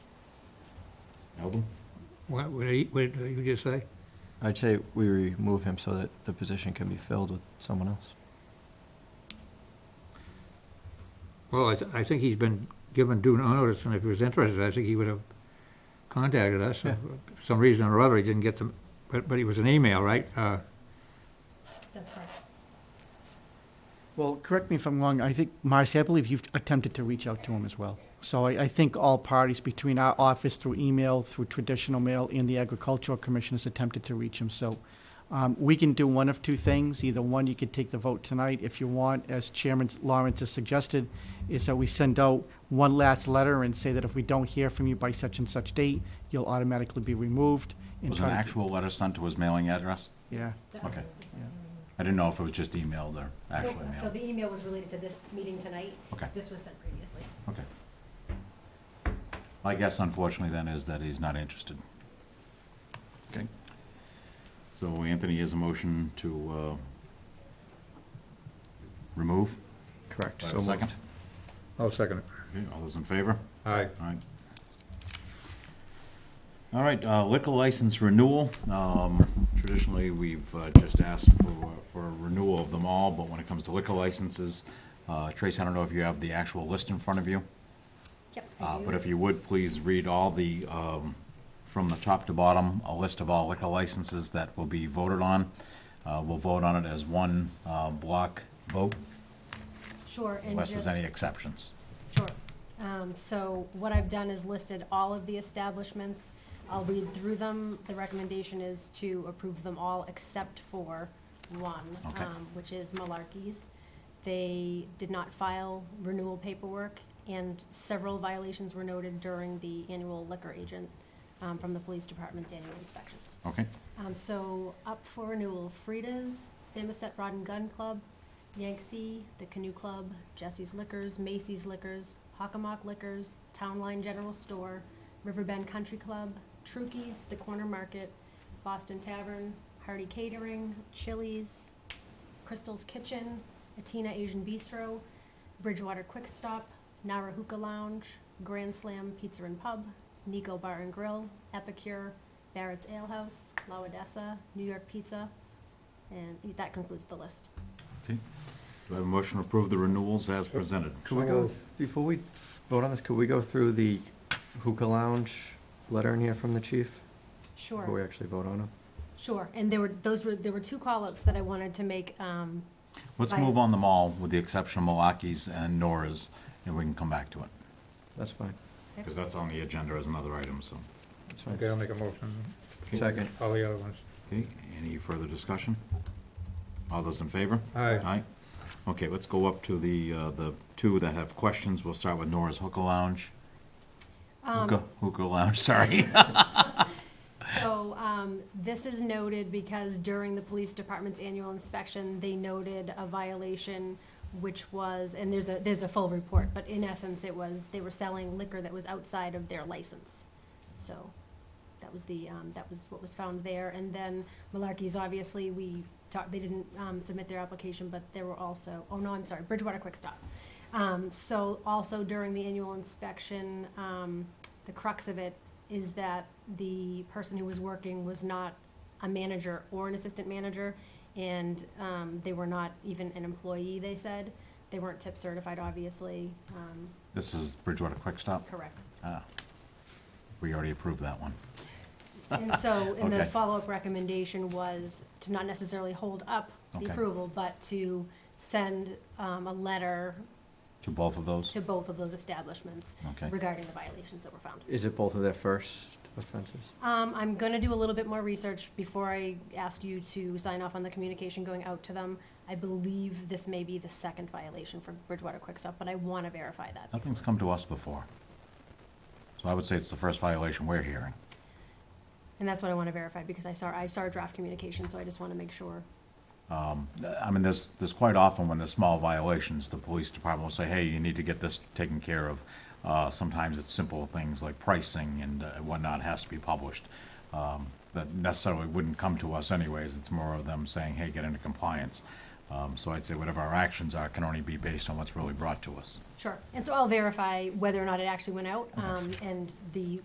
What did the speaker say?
Eldon? What, what did he- what did you just say? I'd say we remove him so that the position can be filled with someone else. Well, I, th- I think he's been given due notice, and if he was interested, I think he would have contacted us. Yeah. For some reason or other, he didn't get them, but, but it was an email, right? Uh, That's correct. Well, correct me if I'm wrong, I think, Marcy, I believe you've attempted to reach out to him as well. So I, I think all parties between our office through email, through traditional mail, and the agricultural commission has attempted to reach him. So um, we can do one of two things. Either one, you could take the vote tonight if you want, as Chairman Lawrence has suggested, is that we send out one last letter and say that if we don't hear from you by such and such date, you'll automatically be removed. and Was an try to- actual letter sent to his mailing address? Yeah. That- Okay. that's- I didn't know if it was just emailed or actually Nope, So mailed. the email was related to this meeting tonight. Okay. This was sent previously. Okay. My guess unfortunately then is that he's not interested. Okay. So Anthony is a motion to, uh, remove. Correct. Do I have a second? I'll second it. Okay, all those in favor? Aye. All right. All right, uh, liquor license renewal. Um, Traditionally, we've uh, just asked for, for a renewal of them all, but when it comes to liquor licenses, uh, Trace, I don't know if you have the actual list in front of you, Yep. I uh, do. but if you would, please read all the, um, from the top to bottom, a list of all liquor licenses that will be voted on. Uh, We'll vote on it as one uh, block vote, Sure, and unless there's just- any exceptions. Sure. Um, So what I've done is listed all of the establishments. I'll read through them. The recommendation is to approve them all except for one, Okay. um, which is Malarkey's. They did not file renewal paperwork, and several violations were noted during the annual liquor agent um, from the police department's annual inspections. Okay? Um, so up for renewal, Frida's, Samoset Rod and Gun Club, Yangtze, the Canoe Club, Jesse's Liquors, Macy's Liquors, Hockamock Liquors, Town Line General Store, Riverbend Country Club, Trukey's, the Corner Market, Boston Tavern, Hardy Catering, Chili's, Crystal's Kitchen, Atina Asian Bistro, Bridgewater Quick Stop, Nara Hookah Lounge, Grand Slam Pizza and Pub, Nico Bar and Grill, Epicure, Barrett's Ale House, La Odessa, New York Pizza, and that concludes the list. Okay. Do I have a motion to approve the renewals as presented? Could we go, before we vote on this, could we go through the hookah lounge letter in here from the chief? Before we Sure, actually vote on him? sure. And there were, those were, there were two call-ups that I wanted to make, um, Let's Right. move on them all, with the exception of Malaki's and Nora's, and we can come back to it, That's fine. because that's on the agenda as another item, so. That's Okay, fine. I'll make a motion, Second. all the other ones. Okay, any further discussion? All those in favor? Aye. Aye. Okay, let's go up to the, uh, the two that have questions. We'll start with Nora's Hookah Lounge. Um, Hookah, Hookah Lounge, sorry. So, um, this is noted because during the police department's annual inspection, they noted a violation, which was, and there's a, there's a full report, but in essence, it was, they were selling liquor that was outside of their license. So, that was the, um, that was what was found there. And then Malarkey's, obviously, we talked, they didn't, um, submit their application, but there were also, oh no, I'm sorry, Bridgewater Quick Stop. Um, so also during the annual inspection, um, the crux of it is that the person who was working was not a manager or an assistant manager, and, um, they were not even an employee, they said. They weren't tip certified, obviously, um, This is Bridgewater Quick Stop. correct. Ah, We already approved that one. And so, and the Okay. follow-up recommendation was to not necessarily hold up the Okay. approval, but to send um, a letter To both of those? to both of those establishments Okay. regarding the violations that were found. Is it both of their first offenses? Um, I'm gonna do a little bit more research before I ask you to sign off on the communication going out to them. I believe this may be the second violation for Bridgewater Quick Stop, but I wanna verify that. Nothing's come to us before. So I would say it's the first violation we're hearing. And that's what I wanna verify, because I saw, I saw a draft communication, so I just wanna make sure. I mean, there's, there's quite often when there's small violations, the police department will say, hey, you need to get this taken care of. Uh, sometimes it's simple things like pricing and uh, whatnot has to be published. Um, that necessarily wouldn't come to us anyways. It's more of them saying, hey, get into compliance. Um, so I'd say whatever our actions are can only be based on what's really brought to us. Sure, and so I'll verify whether or not it actually went out, um, and the